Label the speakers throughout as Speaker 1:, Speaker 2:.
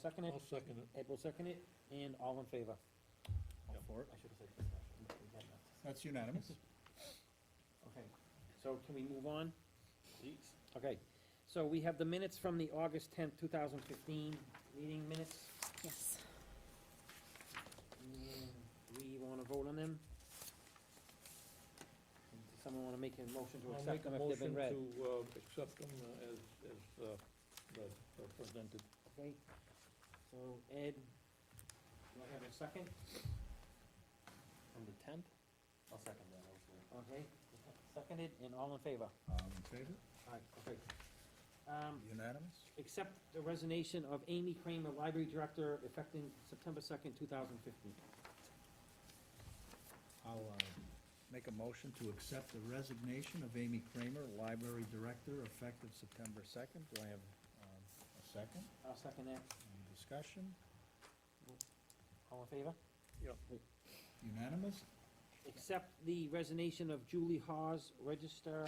Speaker 1: second it,
Speaker 2: I'll second it.
Speaker 1: Ed will second it, and all in favor?
Speaker 2: All
Speaker 1: for it? I should have said discussion. We got that.
Speaker 3: That's unanimous.
Speaker 1: Okay, so can we move on? Okay, so we have the minutes from the August tenth, two thousand fifteen meeting minutes.
Speaker 4: Yes.
Speaker 1: And We wanna vote on them? And Does someone wanna make a motion to
Speaker 2: I'll
Speaker 1: accept
Speaker 2: make a
Speaker 1: them if they've
Speaker 2: motion
Speaker 1: been read?
Speaker 2: to, uh, accept them uh, as, as, uh, read, uh, presented.
Speaker 1: Okay, so Ed, do I have a second?
Speaker 5: On the tenth? I'll second that,
Speaker 1: Okay, seconded, and all in favor?
Speaker 3: All in favor?
Speaker 1: Alright, okay. Um,
Speaker 3: Unanimous?
Speaker 1: accept the resignation of Amy Kramer, Library Director, effective September second, two thousand fifteen.
Speaker 3: I'll uh, make a motion to accept the resignation of Amy Kramer, Library Director, effective September 2nd. Do I have um, a second?
Speaker 1: I'll second that.
Speaker 3: Any discussion?
Speaker 1: All in favor?
Speaker 3: Unanimous?
Speaker 1: Accept the resignation of Julie Hawes, Register,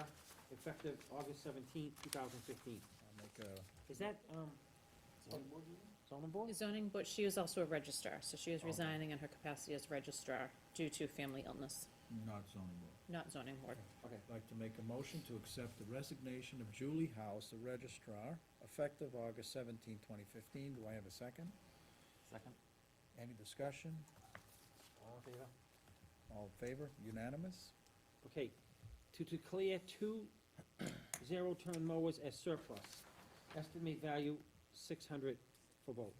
Speaker 1: effective August seventeenth, two thousand fifteen.
Speaker 3: I'll make a,
Speaker 1: Is that, um, zoning board?
Speaker 4: Zoning, but she is also a registrar, so she is
Speaker 3: Okay.
Speaker 4: resigning in her capacity as registrar due to family illness,
Speaker 3: not zoning board.
Speaker 4: not zoning board.
Speaker 1: Okay,
Speaker 3: I'd like to make a motion to accept the resignation of Julie House, the Registrar, effective August 17, 2015. Do I have a second?
Speaker 5: Second?
Speaker 3: Any discussion?
Speaker 1: all in favor?
Speaker 3: All in favor? Unanimous?
Speaker 1: Okay, to declare two zero-turn mowers as surplus, estimate value six hundred for both.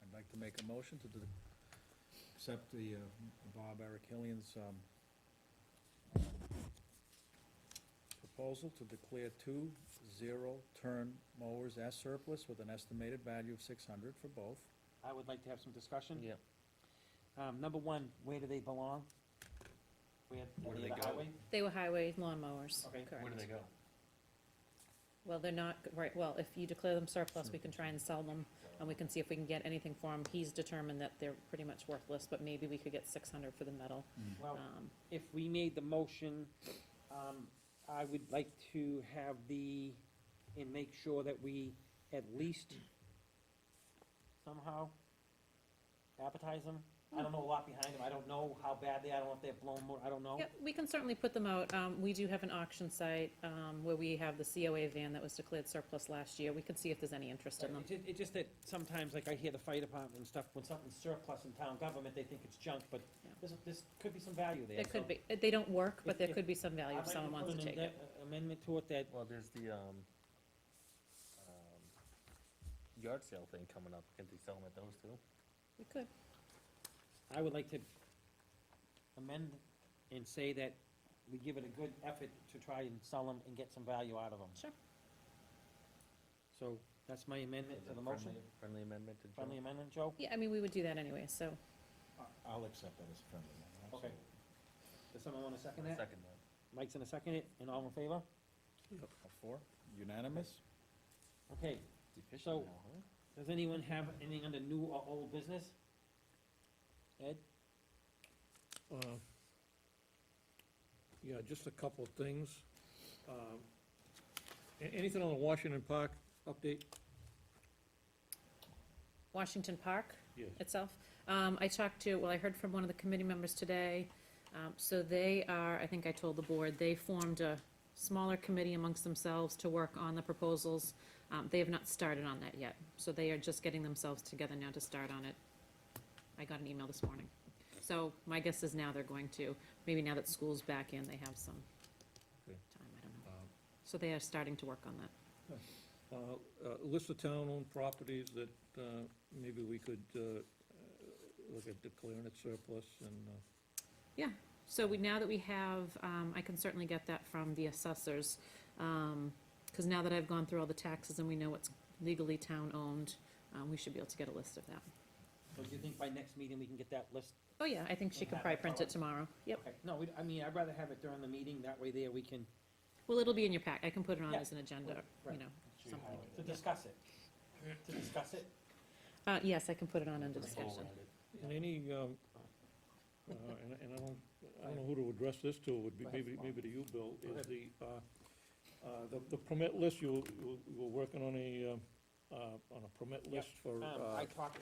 Speaker 3: I'd like to make a motion to de- accept the uh, Bob Eric Hillian's um, proposal to declare two zero-turn mowers as surplus with an estimated value of 600 for both.
Speaker 1: I would like to have some discussion.
Speaker 5: Yeah.
Speaker 1: Um, number one, where do they belong? Where,
Speaker 5: Where do
Speaker 1: near
Speaker 5: they
Speaker 1: the
Speaker 5: go?
Speaker 1: highway?
Speaker 4: They were highway lawn mowers.
Speaker 1: Okay,
Speaker 4: correct.
Speaker 5: Where do they go?
Speaker 4: Well, they're not, right, well, if you declare them surplus, we can try and sell them,
Speaker 5: Um,
Speaker 4: and we can see if we can get anything for them. He's determined that they're pretty much worthless, but maybe we could get six hundred for the metal.
Speaker 1: Well,
Speaker 4: Um,
Speaker 1: if we made the motion, um, I would like to have the, and make sure that we at least somehow advertise them. I don't know a lot behind them, I don't know how bad they, I don't know if they're blown more, I don't know.
Speaker 4: yeah, we can certainly put them out. Um, we do have an auction site, um, where we have the COA van that was declared surplus last year. We can see if there's any interest in them.
Speaker 1: It's, ju- it's just that sometimes, like I hear the fire department and stuff, when something's surplus in town government, they think it's junk, but
Speaker 4: Yeah.
Speaker 1: there's, there's, could be some value there.
Speaker 4: There could
Speaker 1: so
Speaker 4: be, uh, they don't work,
Speaker 1: If-
Speaker 4: but there
Speaker 1: if-
Speaker 4: could be some value
Speaker 1: I'd
Speaker 4: if
Speaker 1: like
Speaker 4: someone wants
Speaker 1: put
Speaker 4: to
Speaker 1: an
Speaker 4: take it.
Speaker 1: amend- Amendment to it that,
Speaker 5: Well, there's the, um, um, yard sale thing coming up, can they sell them at those too?
Speaker 4: We could.
Speaker 1: I would like to amend and say that we give it a good effort to try and sell them and get some value out of them.
Speaker 4: Sure.
Speaker 1: So that's my amendment to the motion,
Speaker 5: Friendly- Friendly amendment to Joe?
Speaker 1: friendly amendment, Joe?
Speaker 4: Yeah, I mean, we would do that anyway, so,
Speaker 3: I'll accept that as a friendly amendment.
Speaker 1: Okay. Does someone wanna second
Speaker 5: I'll
Speaker 1: that?
Speaker 5: Second that.
Speaker 1: Mike's gonna second it, and all in favor?
Speaker 3: All four? Unanimous?
Speaker 1: Okay,
Speaker 5: Efficient
Speaker 1: So-
Speaker 5: now, huh?
Speaker 1: does anyone have anything under new or old business? Ed?
Speaker 2: Uh, Yeah, just a couple of things. Um, a- Anything on the Washington Park update?
Speaker 4: Washington Park
Speaker 2: Yes.
Speaker 4: itself. Um, I talked to, well, I heard from one of the committee members today. Um, so they are, I think I told the board, they formed a smaller committee amongst themselves to work on the proposals. Um, they have not started on that yet, so they are just getting themselves together now to start on it. I got an email this morning. So my guess is now they're going to, maybe now that school's back in, they have some
Speaker 2: Okay.
Speaker 4: time, I don't
Speaker 3: Um,
Speaker 4: know. So they are starting to work on that.
Speaker 2: Uh, uh, List of town-owned properties that uh, maybe we could uh, uh, look at declaring it surplus and, uh,
Speaker 4: So we, now that we have, um, I can certainly get that from the assessors, Um 'cause cause now that I've gone through all the taxes and we know what's legally town-owned, um, we should be able to get a list of that.
Speaker 1: So do you think by next meeting we can get that list?
Speaker 4: Oh, yeah, I think she
Speaker 1: And
Speaker 4: could
Speaker 1: have
Speaker 4: probably
Speaker 1: it
Speaker 4: print it
Speaker 1: followed.
Speaker 4: tomorrow. Yep.
Speaker 1: Okay, No, we, I mean, I'd rather have it during the meeting, that way there we can,
Speaker 4: Well, it'll be in your pack. I can put it on
Speaker 1: Yeah.
Speaker 4: as an agenda, you
Speaker 1: Right.
Speaker 4: know,
Speaker 5: Sure you
Speaker 4: something.
Speaker 5: highlight
Speaker 1: to discuss it, to discuss it.
Speaker 4: Uh, yes, I can put it on under
Speaker 5: Put a bow
Speaker 4: discussion.
Speaker 5: around it.
Speaker 2: and any, um, uh, and and I don't, I don't know who to address this to, would be
Speaker 1: Go ahead.
Speaker 2: maybe, maybe to you, Bill,
Speaker 1: Go ahead.
Speaker 2: is the, uh, uh, the- the permit list, you, you you were working on a, um, uh, on a permit list for.
Speaker 1: Um,
Speaker 2: uh,
Speaker 1: I talked